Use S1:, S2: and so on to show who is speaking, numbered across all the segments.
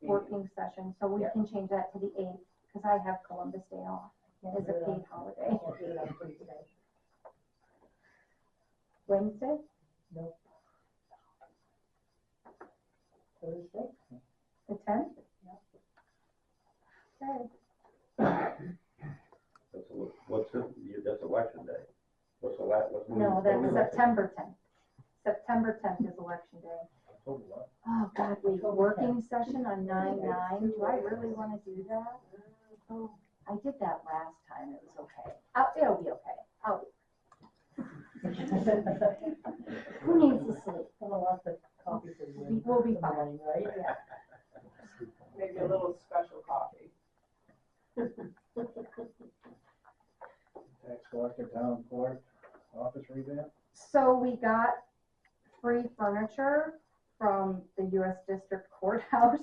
S1: working session, so we
S2: Yeah.
S1: can change that to the eighth, because I have Columbus Day off, it's a paid holiday. Wednesday,
S2: Thursday?
S1: the tenth? Okay,
S3: That's a, what's, the- that's election day. What's the la, what's?
S1: no, that's September tenth. September tenth is election day. Oh, God, we,
S2: October
S1: working session on nine nine, do I really wanna do that? Oh, I did that last time, it was okay. Oh, it'll be okay. Oh, who needs to sleep? We will be fine.
S2: right?
S1: Yeah,
S4: Maybe a little special coffee.
S5: Tax collector, town clerk, office revamp?
S1: so we got free furniture from the US District Courthouse.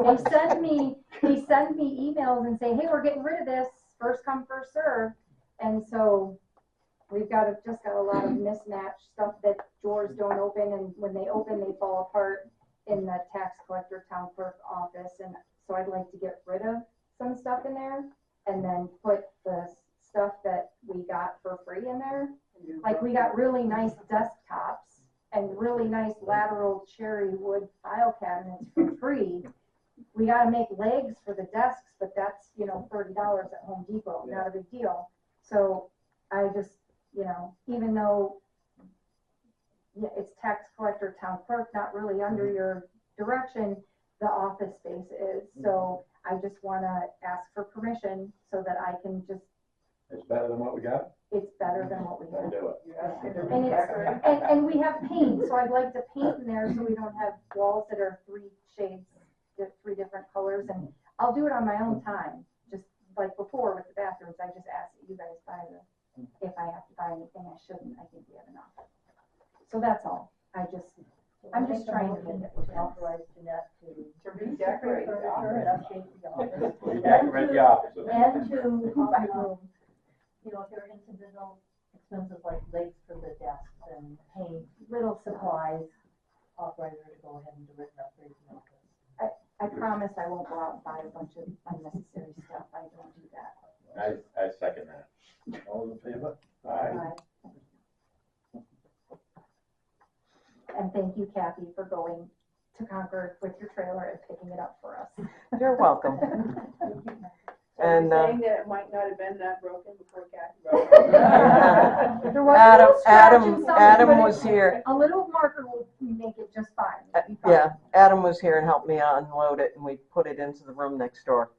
S1: They send me, they send me emails and say, hey, we're getting rid of this, first come, first served. And so we've got, a- just got a lot of mismatched stuff that doors don't open and when they open, they fall apart in the tax collector town clerk office. And so I'd like to get rid of some stuff in there and then put the s- stuff that we got for free in there. Like we got really nice desktops and really nice lateral cherry wood file cabinets for free. We gotta make legs for the desks, but that's, you know, thirty dollars at Home Depot, not a big deal. So I just, you know, even though yeah, it's tax collector, town clerk, not really under your direction, the office space is. So I just wanna ask for permission so that I can just,
S3: It's better than what we got?
S1: it's better than what we have.
S3: Then do it.
S4: You're asking to
S1: And it's, and, and we have paint, so I'd like to paint in there so we don't have walls that are three shades, di- three different colors. And I'll do it on my own time, just like before with the bathrooms, I just asked that you guys buy the, if I have to buy anything I shouldn't, I think we have enough. So that's all, I just, I'm just trying to make it work.
S2: Authorize Jeanette to.
S4: To redecorate the
S2: Furniture
S4: office.
S2: and update the office.
S3: We decorate the offices.
S2: And to,
S1: my
S2: um,
S1: room.
S2: you know, if there are incidental expenses like legs for the desks and paint,
S1: Little supply,
S2: supplies, authorize her to go ahead and do it and upgrade the office.
S1: I promise I won't go out and buy a bunch of unnecessary stuff, I don't do that.
S3: I, I second that.
S5: All in favor?
S3: Aye.
S1: And thank you Kathy for going to Concord with your trailer and picking it up for us.
S6: You're welcome.
S4: So you're
S6: And, uh,
S4: Saying that it might not have been that broken before Kathy wrote it.
S1: There was a
S6: Adam,
S1: little scratch and
S6: Adam,
S1: something, but
S6: Adam
S1: it-
S6: was here,
S1: A little marker will make it just fine.
S6: Uh,
S1: It'll be fine.
S6: yeah, Adam was here and helped me unload it and we put it into the room next door.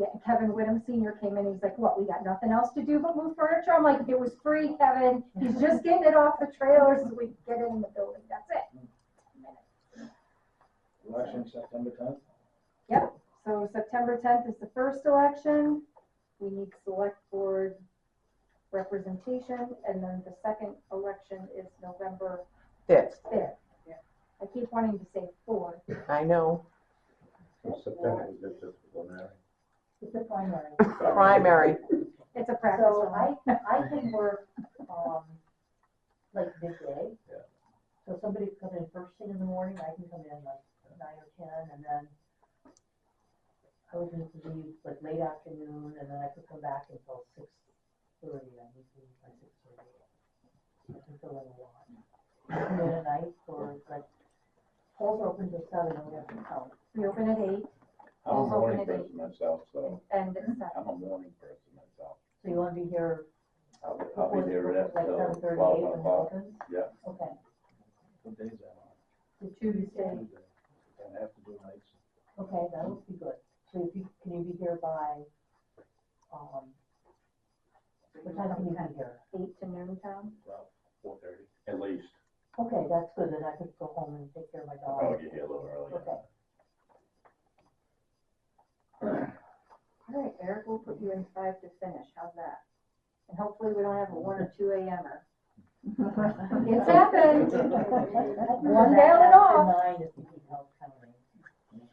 S1: Yeah, Kevin Whittem Senior came in, he's like, what, we got nothing else to do but move furniture? I'm like, it was free, Kevin, he's just getting it off the trailers as we get it in the building, that's it.
S5: Election September tenth?
S1: So September tenth is the first election. We need select board representation, and then the second election is November
S6: Fifth,
S1: fifth.
S4: Yeah.
S1: I keep wanting to say fourth.
S6: I know,
S3: So September is just just preliminary.
S2: It's a primary.
S6: primary,
S1: It's a practice
S2: So
S1: one.
S2: I, I can work, um, like midday.
S3: Yeah.
S2: So somebody could come in first thing in the morning, I can come in like nine or ten, and then I would need to leave like late afternoon, and then I could come back until six thirty, I need to leave by six thirty. I can fill in a lot. And then at night, or like, polls are open till seven, and we have to count.
S1: We open at eight
S3: I'm a morning person myself, so
S1: and it's at
S3: I'm a morning person myself.
S2: So you wanna be here
S3: I'll, be- I'll
S2: before,
S3: be
S2: the-
S3: there at
S2: like
S3: till
S2: seven thirty,
S3: twelve
S2: eight when it
S3: o'clock.
S2: opens?
S3: yeah.
S2: Okay.
S5: What day is that on?
S1: the Tuesday.
S5: Tuesday. Don't have to do nights.
S2: Okay, that would be good. So if you, can you be here by, um, what time can you be here?
S1: Eight to noon time.
S5: Four thirty.
S3: At least.
S2: Okay, that's good, then I could go home and take care of my
S3: I'll probably
S2: dog.
S3: get here a little earlier.
S2: Okay.
S1: All right, Eric, we'll put you in five to finish, how's that? And hopefully we don't have a one or two AMer. It's happened. One day at a time.
S2: Nine if you need help coming.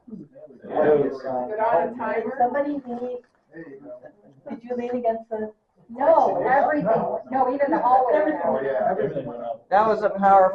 S1: Oh,
S4: Put
S5: uh,
S4: on a timer.
S2: Somebody lean, did you lean against the?
S1: No, everything, no, even the hallway.
S2: Everything.
S5: Oh, yeah, everything went up.
S6: That was a powerful